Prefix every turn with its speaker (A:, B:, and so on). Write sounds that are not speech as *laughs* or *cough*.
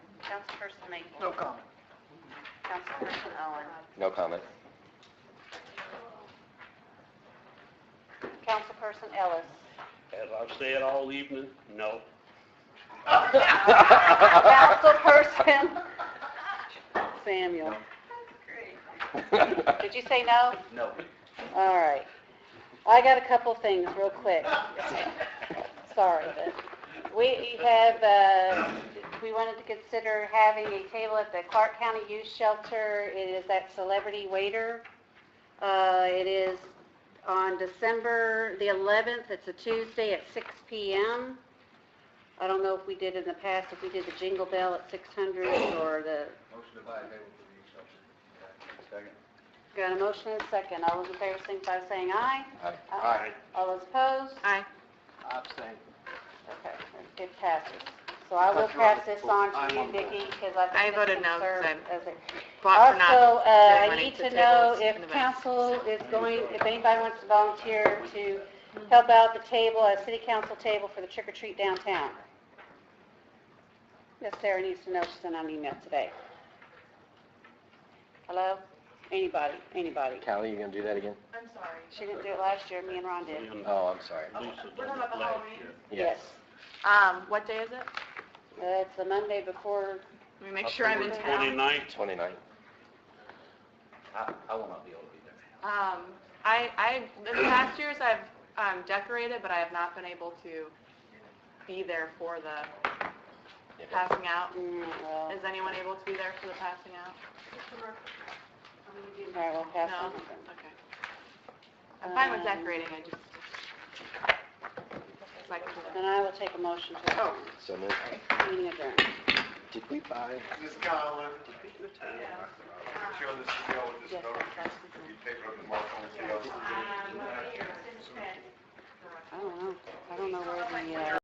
A: Councilperson Maple.
B: No comment.
A: Councilperson Owen.
C: No comment.
A: Councilperson Ellis.
D: As I've said all evening, no.
A: Councilperson Samuel. Did you say no?
D: No.
A: All right. I got a couple things real
B: *laughs*
A: quick. Sorry, but we have, uh, we wanted to consider having a table at the Clark County Youth Shelter. It is at Celebrity Waiter. Uh, It is on December the 11th. It's a Tuesday at 6 PM. I don't know if we did in the past, if we did the Jingle Bell at 600 or the,
B: Motion to buy a table for the youth shelter. Second.
A: got a motion and a second. All those in favor, signify by saying aye.
C: *laughs* Aye.
D: Aye.
A: All those opposed? Aye.
B: Abstain.
A: Okay, it passes. So I will
B: That's right.
A: pass this on
B: I'm
A: to you,
B: on board.
A: Vicki, because I
E: I
A: think this
E: voted
A: can
E: no, 'cause
A: serve
E: I'm
A: as a-
E: Bought for not,
A: Also, uh, I
E: money
A: need
E: to
A: to know
E: tables
A: if
E: in the back.
A: council is going, if anybody wants to volunteer to help out the table, a city council table for the trick or treat downtown. Miss Sarah needs to know, she sent out an email today. Hello? Anybody, anybody?
C: Callie, you gonna do that again?
F: I'm sorry.
A: She didn't do it last year, me and Ron
D: Me
A: did.
D: and
C: Oh, I'm sorry.
D: Lisa
F: We're
D: done
F: talking
D: it
F: about the
D: last
F: Halloween?
D: year.
A: Yes.
E: um, what day is it?
A: Uh, It's the Monday before
E: Let me make sure I'm in town.
D: Twenty-ninth,
C: Twenty-nine.
B: I, I will not be able to be there.
E: Um, I, I, the past years I've, um, decorated, but I have not been able to be there for the passing out.
A: Mm, well,
E: Is anyone able to be there for the passing out?
A: all right, we'll pass
E: No?
A: on it then.
E: Okay. I'm fine with
A: Um,
E: decorating, I just, it's like,
A: Then I will take a motion to adjourn.
C: So moved.
A: Meeting adjourned.
C: Did we buy?
G: Ms. Conlon,
F: Yeah.
G: I'm sure this is going with this
A: Yes,
G: vote.
A: that's us.
G: You take it up the mark on the
B: Um,
A: I don't know, I don't know where the, uh...